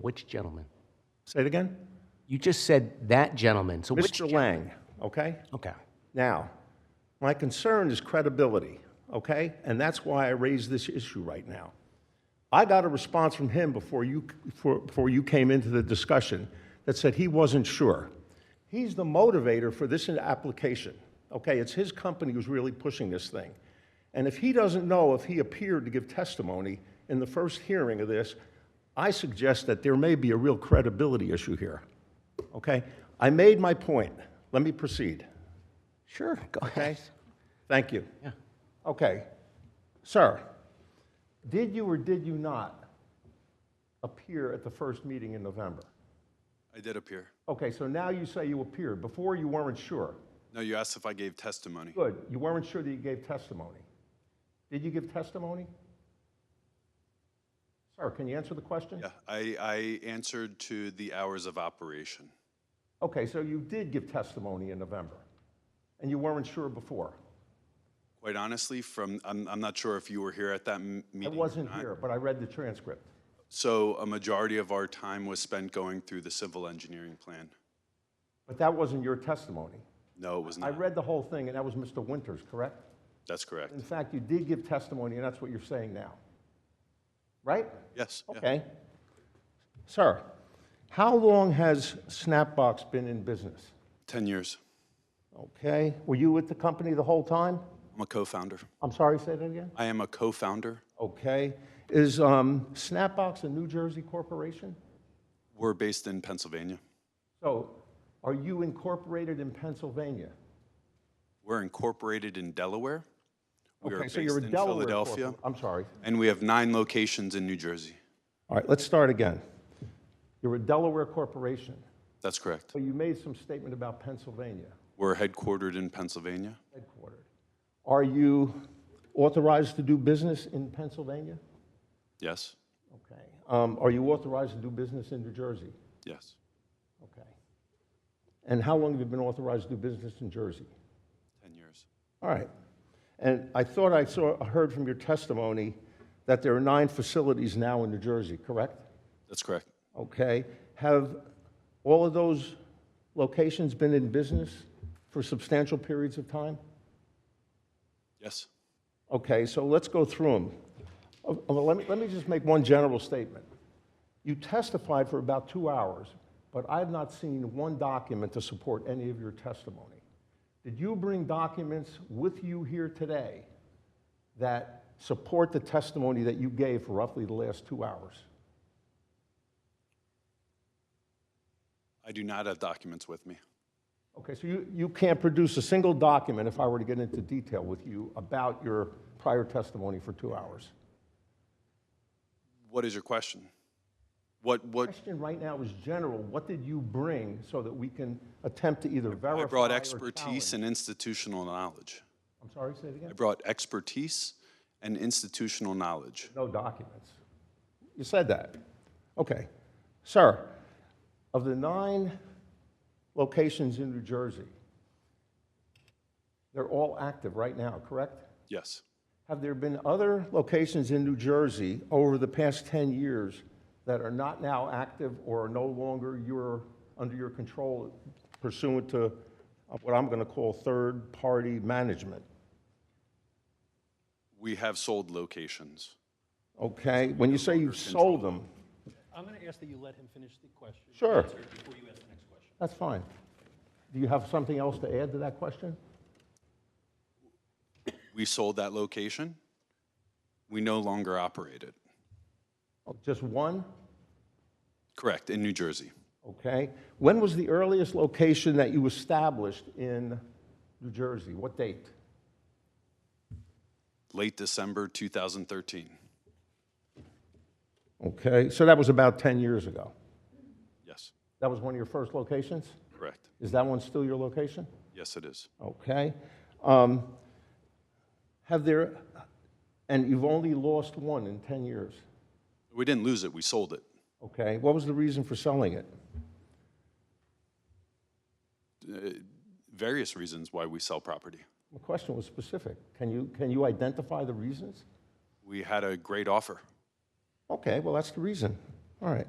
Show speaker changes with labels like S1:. S1: Which gentleman?
S2: Say it again?
S1: You just said that gentleman, so which?
S2: Mr. Lang, okay?
S1: Okay.
S2: Now, my concern is credibility, okay? And that's why I raise this issue right now. I got a response from him before you, before, before you came into the discussion that said he wasn't sure. He's the motivator for this application, okay? It's his company who's really pushing this thing. And if he doesn't know if he appeared to give testimony in the first hearing of this, I suggest that there may be a real credibility issue here, okay? I made my point. Let me proceed.
S1: Sure, go
S2: Okay,
S1: ahead.
S2: thank you.
S1: Yeah.
S2: Okay, sir, did you or did you not appear at the first meeting in November?
S3: I did appear.
S2: Okay, so now you say you appeared. Before, you weren't sure.
S3: No, you asked if I gave testimony.
S2: Good, you weren't sure that you gave testimony. Did you give testimony? Sir, can you answer the question?
S3: Yeah, I, I answered to the hours of operation.
S2: Okay, so you did give testimony in November, and you weren't sure before.
S3: Quite honestly, from, I'm, I'm not sure if you were here at that m-
S2: I
S3: meeting.
S2: wasn't here, but I read the transcript.
S3: So a majority of our time was spent going through the civil engineering plan.
S2: But that wasn't your testimony.
S3: No, it was
S2: I
S3: not.
S2: read the whole thing, and that was Mr. Winters, correct?
S3: That's correct.
S2: In fact, you did give testimony, and that's what you're saying now. Right?
S3: Yes. yeah.
S2: Okay. Sir, how long has Snapbox been in business?
S3: 10 years.
S2: Okay. Were you with the company the whole time?
S3: I'm a co-founder.
S2: I'm sorry, say that again?
S3: I am a co-founder.
S2: Okay. Is um, Snapbox a New Jersey corporation?
S3: We're based in Pennsylvania.
S2: So are you incorporated in Pennsylvania?
S3: We're incorporated in Delaware. We are
S2: Okay,
S3: based
S2: so you're a
S3: in
S2: Delaware
S3: Philadelphia.
S2: corpor- I'm sorry.
S3: And we have nine locations in New Jersey.
S2: All right, let's start again. You're a Delaware corporation,
S3: That's correct.
S2: so you made some statement about Pennsylvania.
S3: We're headquartered in Pennsylvania.
S2: headquartered. Are you authorized to do business in Pennsylvania?
S3: Yes.
S2: Okay. Um, Are you authorized to do business in New Jersey?
S3: Yes.
S2: Okay. And how long have you been authorized to do business in Jersey?
S3: 10 years.
S2: All right. And I thought I saw, heard from your testimony that there are nine facilities now in New Jersey, correct?
S3: That's correct.
S2: Okay. Have all of those locations been in business for substantial periods of time?
S3: Yes.
S2: Okay, so let's go through them. Oh, oh, Let me, let me just make one general statement. You testified for about two hours, but I have not seen one document to support any of your testimony. Did you bring documents with you here today that support the testimony that you gave for roughly the last two hours?
S3: I do not have documents with me.
S2: Okay, so you, you can't produce a single document if I were to get into detail with you about your prior testimony for two hours.
S3: What is your question? What, what,
S2: question right now is general. What did you bring so that we can attempt to either verify
S3: I brought
S2: or
S3: expertise
S2: challenge?
S3: and institutional knowledge.
S2: I'm sorry, say it
S3: I
S2: again?
S3: brought expertise and institutional knowledge.
S2: No documents. You said that. Okay. Sir, of the nine locations in New Jersey, they're all active right now, correct?
S3: Yes.
S2: Have there been other locations in New Jersey over the past 10 years that are not now active or are no longer your, under your control pursuant to uh, what I'm going to call third-party management?
S3: We have sold locations.
S2: Okay, when you say you sold them,
S4: I'm going to ask that you let him finish the question.
S2: Sure.
S4: answer it Before you ask the next question.
S2: that's fine. Do you have something else to add to that question?
S3: We sold that location. We no longer operate it.
S2: Oh, Just one?
S3: Correct, in New Jersey.
S2: Okay. When was the earliest location that you established in New Jersey? What date?
S3: Late December 2013.
S2: Okay, so that was about 10 years ago.
S3: Yes,
S2: That was one of your first locations?
S3: correct.
S2: Is that one still your location?
S3: Yes, it is.
S2: Okay. Um, Have there, and you've only lost one in 10 years.
S3: We didn't lose it, we sold it.
S2: Okay. What was the reason for selling it?
S3: Various reasons why we sell property.
S2: The question was specific. Can you, can you identify the reasons?
S3: We had a great offer.
S2: Okay, well, that's the reason. All right.